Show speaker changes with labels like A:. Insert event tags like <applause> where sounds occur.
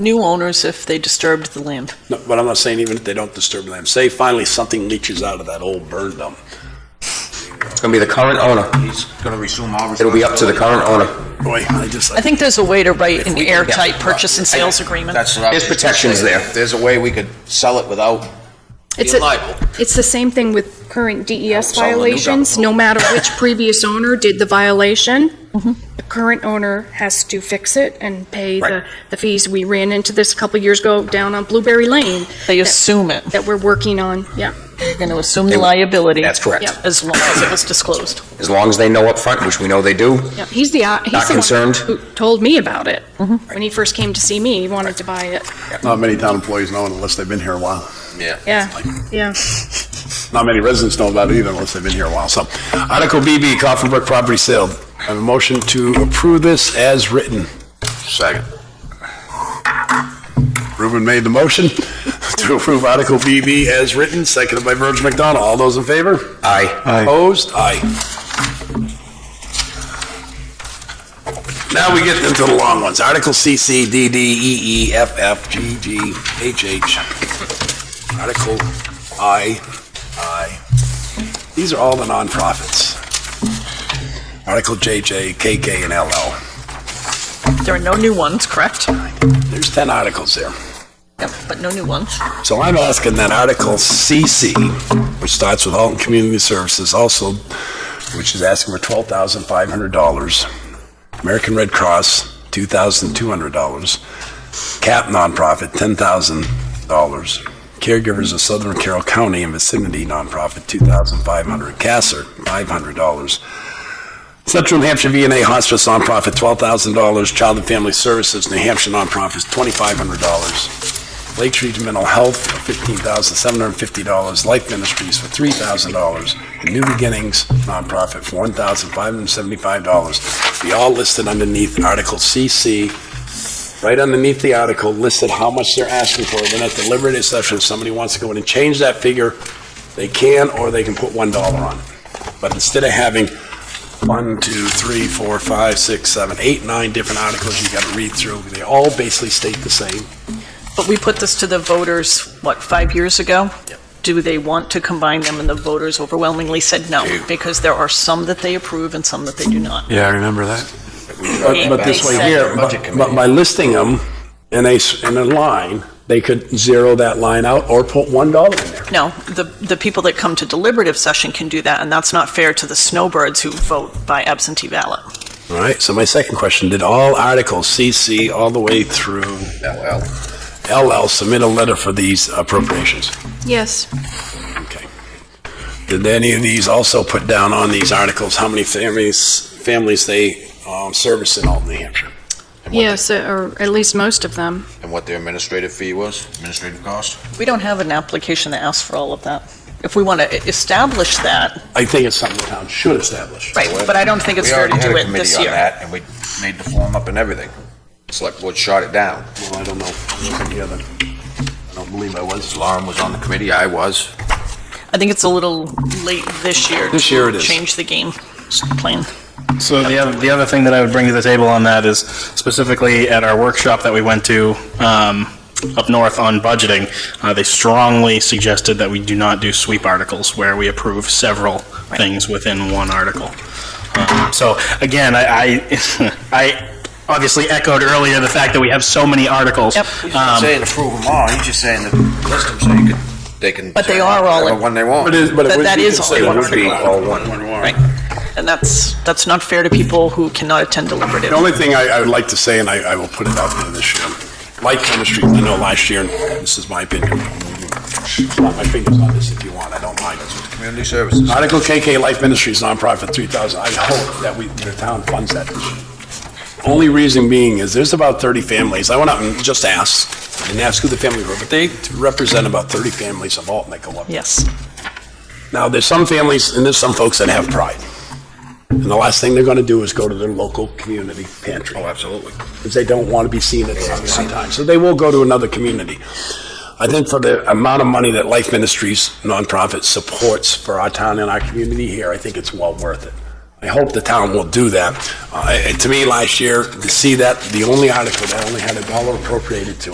A: new owners if they disturbed the land.
B: No, But I'm not saying even if they don't disturb them, say finally something leaches out of that old burn dump.
C: It's gonna be the current owner.
D: He's gonna resume all
C: It'll be up to the current owner.
B: Boy, I just,
A: I think there's a way to write an
D: we can get-
A: airtight purchase and sales agreement.
D: That's what I was
C: There's protections
D: gonna say.
C: there.
D: There's a way we could sell it without
E: It's
D: being
E: a-
D: liable.
E: It's the same thing with current DES
D: It's all the new
E: violations, no
D: government.
E: matter which previous owner did the violation. The current owner has to fix it and pay the, the fees. We ran into this a couple years ago down on Blueberry Lane
A: They assume it.
E: that we're working on, yeah.
A: They're going to assume the liability.
C: That's correct.
E: Yep.
A: As long as it was disclosed.
C: As long as they know up front, which we know they do,
E: Yeah, he's the, uh, he's
C: Not
E: the one
C: concerned?
E: who told me about it. When he first came to see me, he wanted to buy it.
B: not many town employees know it unless they've been here a while.
E: Yeah, yeah.
B: Not many residents know about it either unless they've been here a while, so. Article BB, Coffin Brook property sale. I have a motion to approve this as written.
D: Second.
B: Ruben made the motion <laughs> to approve Article BB as written, seconded by Virgil McDonald. All those in favor?
C: aye.
B: Opposed? Aye. Now we get into the long ones. Article C, C, D, D, E, E, F, F, G, G, H, H. Article I, I. These are all the nonprofits. Article J, J, K, K, and L, L.
A: There are no new ones, correct?
B: There's 10 articles there.
A: Yep, but no new ones.
B: So I'm asking that Article CC, which starts with Alton Community Services also, which is asking for $12,500, American Red Cross, $2,200, CAP nonprofit, $10,000, Caregivers of Southern Carroll County and Vicinity nonprofit, $2,500, CASER, $500, Central New Hampshire VNA Hospice nonprofit, $12,000, Child and Family Services, New Hampshire nonprofits, $2,500. Lake Street Mental Health for fifteen thousand seven hundred and fifty dollars, Life Ministries for three thousand dollars, and New Beginnings nonprofit for one thousand five hundred and seventy-five dollars. They all listed underneath Article CC. Right underneath the article listed how much they're asking for. Then at deliberative session, if somebody wants to go in and change that figure, they can, or they can put one dollar on it. But instead of having one, two, three, four, five, six, seven, eight, nine different articles you gotta read through, they all basically state the same.
A: But we put this to the voters, what, five years ago? Do they want to combine them? And the voters overwhelmingly said no, because there are some that they approve and some that they do not.
F: Yeah, I remember that.
B: But, but this way here, but but by listing them in a, s- in a line, they could zero that line out or put one dollar in there.
A: No, the, the people that come to deliberative session can do that, and that's not fair to the snowbirds who vote by absentee ballot.
B: All right, so my second question, did all articles CC all the way through LL, LL submit a letter for these appropriations?
E: Yes,
B: Okay. Did any of these also put down on these articles, how many families, families they, um, service in Alton, New Hampshire?
E: yes, or at least most of them.
D: And what their administrative fee was, administrative cost?
A: We don't have an application that asks for all of that. If we want to e-, establish that,
B: I think it's something the town should establish.
A: right, but I don't think it's fair to do it
D: We already had a
A: this
D: committee on
A: year.
D: that, and we made the form up and everything. Select board shot it down.
B: Well, I don't know, I wasn't here then. I don't believe I was.
D: Lauren was on the committee, I was.
A: I think it's a little late this year.
B: This
A: to
B: year it is.
A: Change the game plan.
G: So the other, the other thing that I would bring to the table on that is specifically at our workshop that we went to um, up north on budgeting, uh, they strongly suggested that we do not do sweep articles where we approve several things within one article. Um, So again, I, I, <laughs> I obviously echoed earlier the fact that we have so many articles.
A: Yep.
G: Um,
D: Saying approve them all, he's just saying that list them so you could, they can.
A: But they are all in-
D: Whatever One they want.
B: But it is, but
A: That-
B: it would
A: that
B: be
A: is all
B: considered-
A: one
B: it would be
A: article.
B: all one.
A: Right. And that's, that's not fair to people who cannot attend deliberative.
B: The only thing I, I would like to say, and I, I will put it out there this year, like chemistry, I know last year, and this is my opinion, Slap my fingers on this if you want, I don't mind.
D: Community services.
B: Article KK Life Ministries nonprofit, 3,000, I hope that we, the town funds that this year. Only reason being is there's about 30 families, I went out and just asked, I didn't ask who the family were, but they represent about 30 families of Alton that go up.
A: Yes.
B: Now, there's some families, and there's some folks that have pride. And the last thing they're going to do is go to their local community pantry. Oh, absolutely. Because they don't want to be seen at the same time. So they will go to another community. I think for the amount of money that Life Ministries nonprofit supports for our town and our community here, I think it's well worth it. I hope the town will do that. Uh, and To me, last year, to see that, the only article that only had a dollar appropriated to it.